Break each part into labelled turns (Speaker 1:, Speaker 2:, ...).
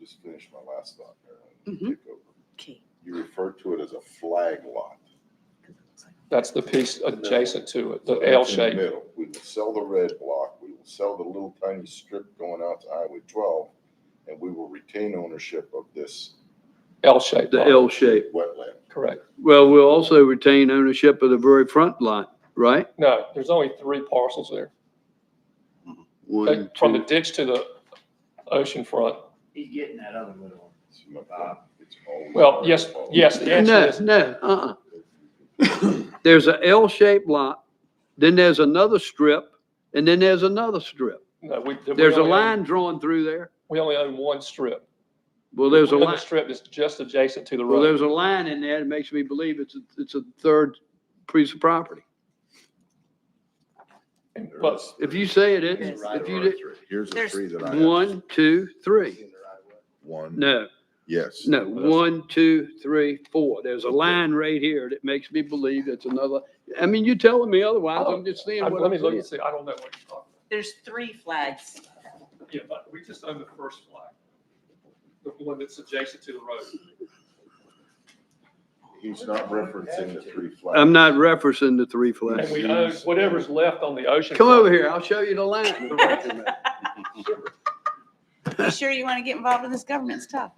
Speaker 1: just finish my last thought there and
Speaker 2: Mm-hmm.
Speaker 3: Mhm.
Speaker 1: take over.
Speaker 3: Okay.
Speaker 1: You referred to it as a flag lot.
Speaker 4: That's the piece adjacent to it, the
Speaker 1: So
Speaker 4: L
Speaker 1: it's in the
Speaker 4: shape.
Speaker 1: Middle. We will sell the red block, we will sell the little tiny strip going out to Highway twelve, and we will retain ownership of this
Speaker 4: L shape.
Speaker 2: The L shape.
Speaker 1: wetland.
Speaker 4: Correct.
Speaker 2: Well, we'll also retain ownership of the very front lot, right?
Speaker 4: No, there's only three parcels there.
Speaker 2: One,
Speaker 4: From the
Speaker 2: two.
Speaker 4: ditch to the ocean front.
Speaker 5: He's getting that other little
Speaker 1: It's my point. It's always
Speaker 4: Well, yes,
Speaker 1: our fault.
Speaker 4: yes, the answer
Speaker 2: No,
Speaker 4: is,
Speaker 2: no, uh-uh. There's a L-shaped lot, then there's another strip, and then there's another strip.
Speaker 4: no, we. we
Speaker 2: There's a
Speaker 4: only own-
Speaker 2: line drawn through there.
Speaker 4: We only own one strip.
Speaker 2: Well, there's a
Speaker 4: The other
Speaker 2: line,
Speaker 4: strip is just adjacent to the
Speaker 2: well,
Speaker 4: road.
Speaker 2: there's a line in there that makes me believe it's, a- it's a third piece of property.
Speaker 1: There
Speaker 4: But
Speaker 1: is-
Speaker 2: If you say it
Speaker 1: Here's
Speaker 2: isn't,
Speaker 1: a right
Speaker 2: if
Speaker 1: of
Speaker 2: you
Speaker 1: our
Speaker 2: did,
Speaker 1: three. Here's the
Speaker 3: There's-
Speaker 1: three that I have.
Speaker 2: one, two, three.
Speaker 1: One.
Speaker 2: No,
Speaker 1: Yes.
Speaker 2: no, one, two, three, four. There's a line right here that makes me believe it's another. I mean, you're telling me otherwise. I'm just seeing
Speaker 4: I-
Speaker 2: what
Speaker 4: let me
Speaker 2: I'm
Speaker 4: look
Speaker 2: seeing.
Speaker 4: and see, I don't know what you're talking
Speaker 3: There's three flags.
Speaker 4: about. Yeah, but we just own the first flag, the one that's adjacent to the road.
Speaker 1: He's not referencing the three flags.
Speaker 2: I'm not referencing the three
Speaker 4: And
Speaker 2: flags.
Speaker 4: we own whatever's left on the ocean.
Speaker 2: Come
Speaker 4: front.
Speaker 2: over here. I'll show you the line.
Speaker 3: You sure you want to get involved in this government stuff?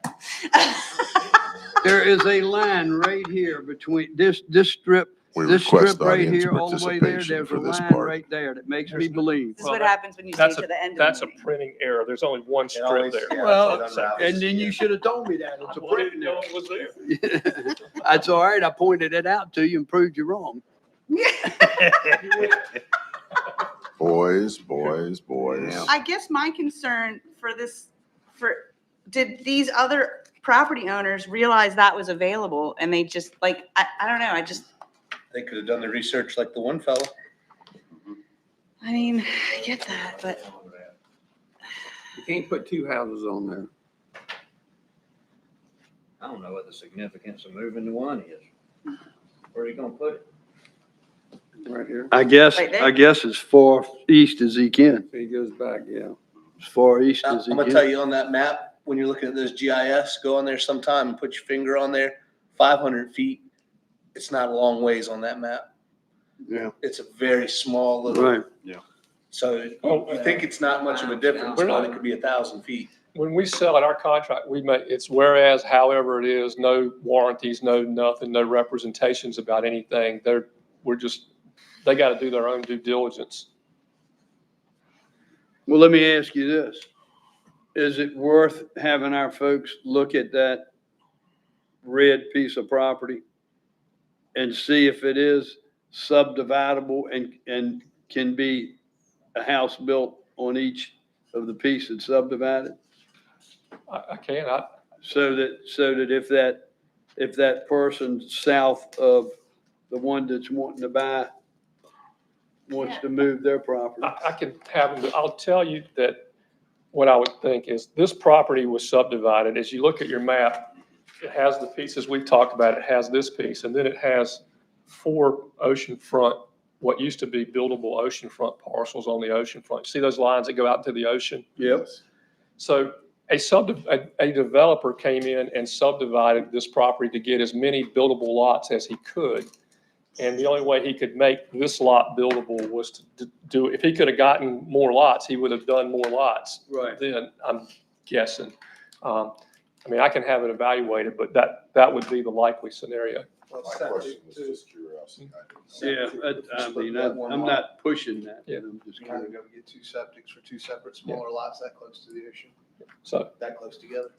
Speaker 2: There is a line right here between this, this strip, this strip right here, all the way there. There's a line right there that makes me
Speaker 4: There's-
Speaker 2: believe.
Speaker 3: This is
Speaker 4: Well,
Speaker 3: what
Speaker 4: that-
Speaker 3: happens when you stay
Speaker 4: that's a-
Speaker 3: to the end of
Speaker 4: That's
Speaker 3: the
Speaker 4: a
Speaker 3: meeting.
Speaker 4: printing error. There's only one strip
Speaker 5: always-
Speaker 4: there.
Speaker 5: yeah,
Speaker 2: Well,
Speaker 5: it's unraveled.
Speaker 2: And then you should have told me that. It's a
Speaker 4: I didn't
Speaker 2: print
Speaker 4: know
Speaker 2: there.
Speaker 4: it was there.
Speaker 2: That's all right. I pointed it out to you and proved you wrong.
Speaker 1: Boys, boys, boys.
Speaker 3: I guess my concern for this, for, did these other property owners realize that was available and they just like, I, I don't know, I just,
Speaker 5: They could have done the research like the one fellow.
Speaker 3: I mean, I get that, but
Speaker 2: You can't put two houses on there.
Speaker 6: I don't know what the significance of moving to one is. Where are you gonna put it?
Speaker 7: Right here,
Speaker 2: I guess,
Speaker 3: Right there.
Speaker 2: I guess as far east as he can,
Speaker 7: he goes back, yeah.
Speaker 2: as far east
Speaker 6: I'm
Speaker 2: as he
Speaker 6: gonna tell
Speaker 2: can.
Speaker 6: you on that map, when you're looking at those GIS, go on there sometime and put your finger on there, five hundred feet. It's not a long ways on that map.
Speaker 7: Yeah.
Speaker 6: It's a very small little,
Speaker 2: Right.
Speaker 6: so
Speaker 4: Oh,
Speaker 6: you think it's not much of a difference,
Speaker 4: We're not-
Speaker 6: but it could be a thousand feet.
Speaker 4: When we sell it, our contract, we make, it's whereas, however it is, no warranties, no nothing, no representations about anything. They're, we're just, they got to do their own due diligence.
Speaker 2: Well, let me ask you this. Is it worth having our folks look at that red piece of property and see if it is subdividable and, and can be a house built on each of the piece that's subdivided?
Speaker 4: I, I can't, I,
Speaker 2: So that, so that if that, if that person south of the one that's wanting to buy wants to move their property.
Speaker 4: I, I can have, them- I'll tell you that what I would think is this property was subdivided. As you look at your map, it has the pieces we've talked about. It has this piece and then it has four oceanfront, what used to be buildable oceanfront parcels on the oceanfront. See those lines that go out to the ocean?
Speaker 2: Yep.
Speaker 4: So a sub, a, a developer came in and subdivided this property to get as many buildable lots as he could. And the only way he could make this lot buildable was to d- do, if he could have gotten more lots, he would have done more lots.
Speaker 2: Right.
Speaker 4: Then, I'm guessing. Um, I mean, I can have it evaluated, but that, that would be the likely scenario.
Speaker 1: My question was just curiosity. I didn't know.
Speaker 2: Yeah, I, I mean, I- I'm not pushing that.
Speaker 4: Yeah.
Speaker 2: I'm just
Speaker 8: You're not
Speaker 2: kinda-
Speaker 8: gonna go get two septics for two separate smaller lots that close to the ocean,
Speaker 4: So
Speaker 8: that close together.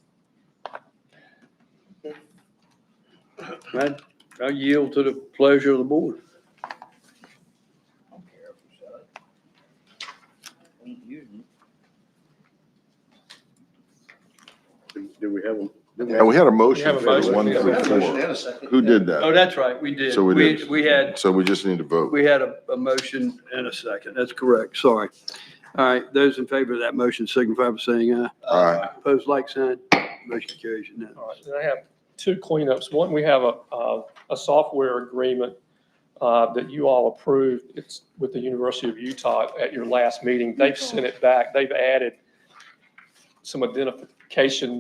Speaker 2: I, I yield to the pleasure of the board. Do we have them?
Speaker 1: Yeah, we had a
Speaker 4: We
Speaker 1: motion
Speaker 4: have a
Speaker 1: for the
Speaker 4: motion.
Speaker 1: one
Speaker 4: We
Speaker 1: through
Speaker 4: have a
Speaker 8: motion
Speaker 1: four.
Speaker 8: and
Speaker 1: Who did
Speaker 2: Oh,
Speaker 1: that?
Speaker 2: that's right, we did.
Speaker 1: So we
Speaker 2: We,
Speaker 1: did.
Speaker 2: we had
Speaker 1: So we just need to vote.
Speaker 2: We had a, a motion and a second. That's correct. Sorry. All right. Those in favor of that motion signify by saying aye.
Speaker 1: All right,
Speaker 2: Opposed, like sign. Motion carries unanimous.
Speaker 4: All right, then I have two cleanups. One, we have a, a, a software agreement uh, that you all approved. It's with the University of Utah at your last meeting. They've sent it back. They've added some identification